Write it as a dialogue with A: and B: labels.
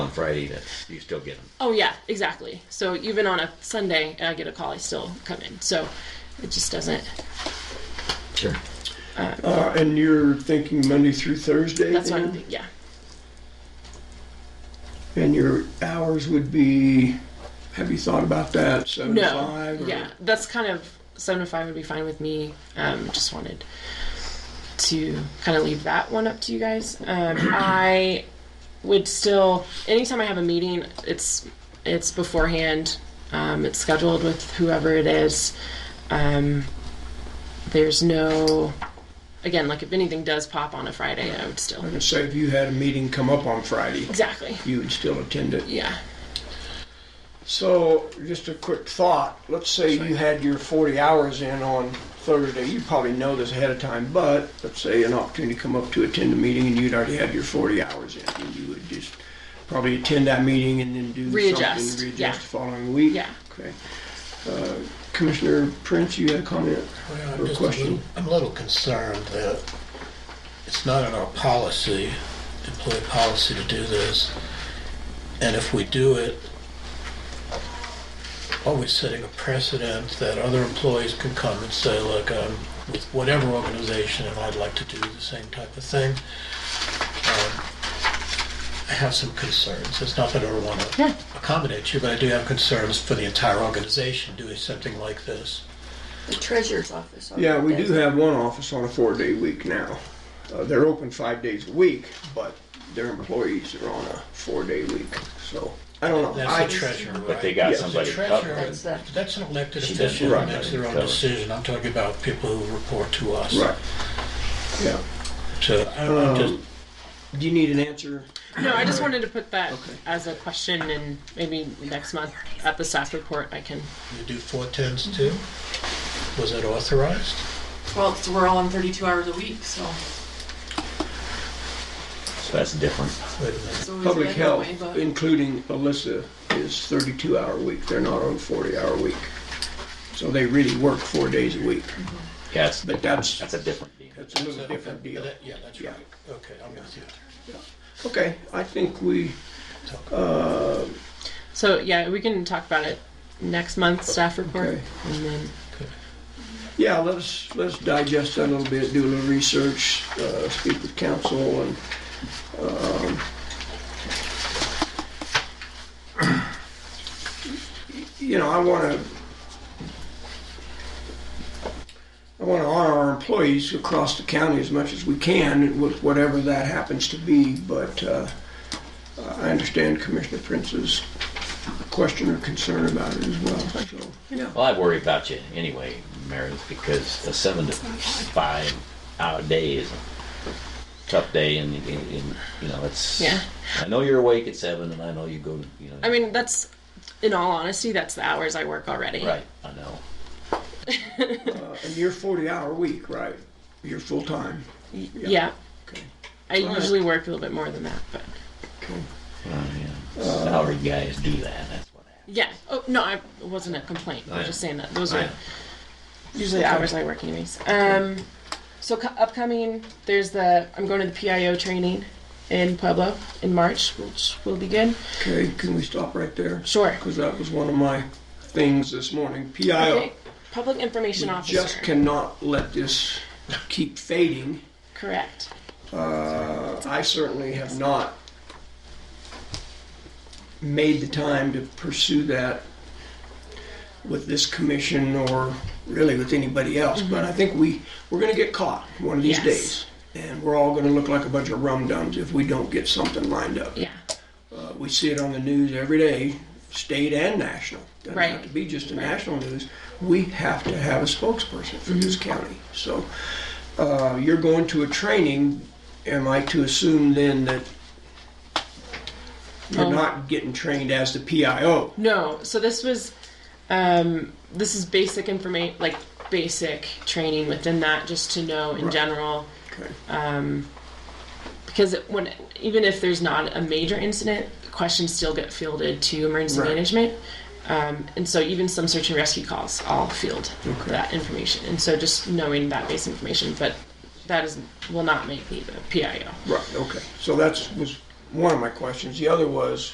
A: Friday, that's, you still get them.
B: Oh yeah, exactly. So even on a Sunday, I get a call. I still come in. So it just doesn't.
A: Sure.
C: Uh, and you're thinking Monday through Thursday?
B: That's what
C: then?
B: I'm. think- Yeah.
C: And your hours would be, have you thought about that? Seven to
B: No.
C: five? or-
B: Yeah. That's kind of seven to five would be fine with me. Um, just wanted to kind of leave that one up to you guys. Um, I would still anytime I have a meeting, it's it's beforehand. Um, it's scheduled with whoever it is. Um, there's no again like if anything does pop on a Friday, I would still
C: And say if you had a meeting come up on Friday,
B: exactly
C: you would still attend it.
B: yeah
C: So, just a quick thought. Let's say you had your 40 hours in on Thursday. You probably know this ahead of time, but let's say an opportunity come up to attend a meeting and you'd already had your 40 hours in. And you would just probably attend that meeting and then do
B: Readjust,
C: something, readjust
B: yeah.
C: the following week.
B: Yeah.
C: Okay. Uh, Commissioner Prince, you had a comment?
D: Well,
C: Or
D: I'm just a
C: question.
D: little, I'm a little concerned that it's not in our policy, employee policy to do this. And if we do it, are we setting a precedent that other employees can come and say, look, I'm with whatever organization and I'd like to do the same type of thing? Um, I have some concerns. It's not that I don't want
B: Yeah.
D: to accommodate you, but I do have concerns for the entire organization doing something like this.
E: The treasurer's office.
C: Yeah, we do have one office on a four-day week now. Uh, they're open five days a week, but their employees are on a four-day week. So I don't know. I,
D: That's the treasurer, right?
A: But they got
C: Yes.
A: somebody
D: The treasurer-
A: covered.
E: That's that.
D: That's an elected
A: She doesn't
D: official
A: run
D: who makes their own
A: it, so-
D: decision. I'm talking about people who report to us.
C: right. Yeah.
D: So I I'm just,
C: Um, Do you need an answer?
B: No, I just wanted to put that
C: Okay.
B: as a question, and maybe next month at the staff report, I can.
D: you do four tens too? Was that authorized?
F: Well, it's, we're all on 32 hours a week, so.
A: So that's different.
D: Wait a minute.
F: it's always
C: Public
F: been that
C: health,
F: way, but-
C: including Alyssa, is 32-hour week. They're not on 40-hour week. So they really work four days a week.
A: Yeah, it's,
C: But that's
A: that's a different deal.
C: that's a little different deal.
D: That- Yeah, that's
C: Yeah.
D: right. Okay, I'm with you.
C: Okay, I think we.
B: So yeah, we can talk about it next month staff report,
C: Okay.
B: and then
C: Yeah, let's, let's digest that a little bit, do a little research, uh, speak with council and, um, you know, I wanna, I wanna honor our employees across the county as much as we can with whatever that happens to be, but, uh, I understand Commissioner Prince's question or concern about it as well, so, yeah.
A: Well, I worry about you anyway, Meredith, because a seven to five hour day is a tough day, and, and, and, you know it's.
B: Yeah.
A: I know you're awake at seven, and I know you go. You know.
B: I mean that's, in all honesty, that's the hours I work already.
A: Right. I know.
C: And you're forty hour week, right? You're full time.
B: Y- Yeah.
C: Okay.
B: I
C: right.
B: usually work a little bit more than that, but
C: Okay.
A: Oh, yeah. Salary guys do that. That's what happens.
B: yeah. Oh no, I it wasn't a complaint. I'm
A: Yeah.
B: just saying that those
A: I
B: are
A: know.
B: usually the hours I work anyways. Um, so co- upcoming, there's the I'm going to the PIO training in Pueblo in March, which will be good.
C: Okay, can we stop right there?
B: Sure.
C: Because that was one of my things this morning. PIO.
B: Okay. Public information officer.
C: Just cannot let this keep fading.
B: Correct.
C: Uh, I certainly have not made the time to pursue that with this commission or really with anybody else. But I think we, we're going to get caught one of these
B: Mm-hmm. Yes.
C: days. And we're all going to look like a bunch of rum dums if we don't get something lined up.
B: Yeah.
C: Uh, we see it on the news every day, state and national. Doesn't have
B: Right.
C: to be just the national news. We have to have a spokesperson for this
B: Mm-hmm.
C: county. So uh, you're going to a training. Am I to assume then that you're
B: Oh.
C: not getting trained as the PIO?
B: No. So this was, um, this is basic information, like basic training within that, just to know in
C: Right.
B: general.
C: Okay.
B: Uh, Because it- when even if there's not a major incident, questions still get fielded to emergency
C: Right.
B: management, um, and so even some search and rescue calls all field
C: Okay.
B: that information. And so just knowing that base information, but that is will not make me the PIO.
C: Right. Okay. So that's was one of my questions. The other was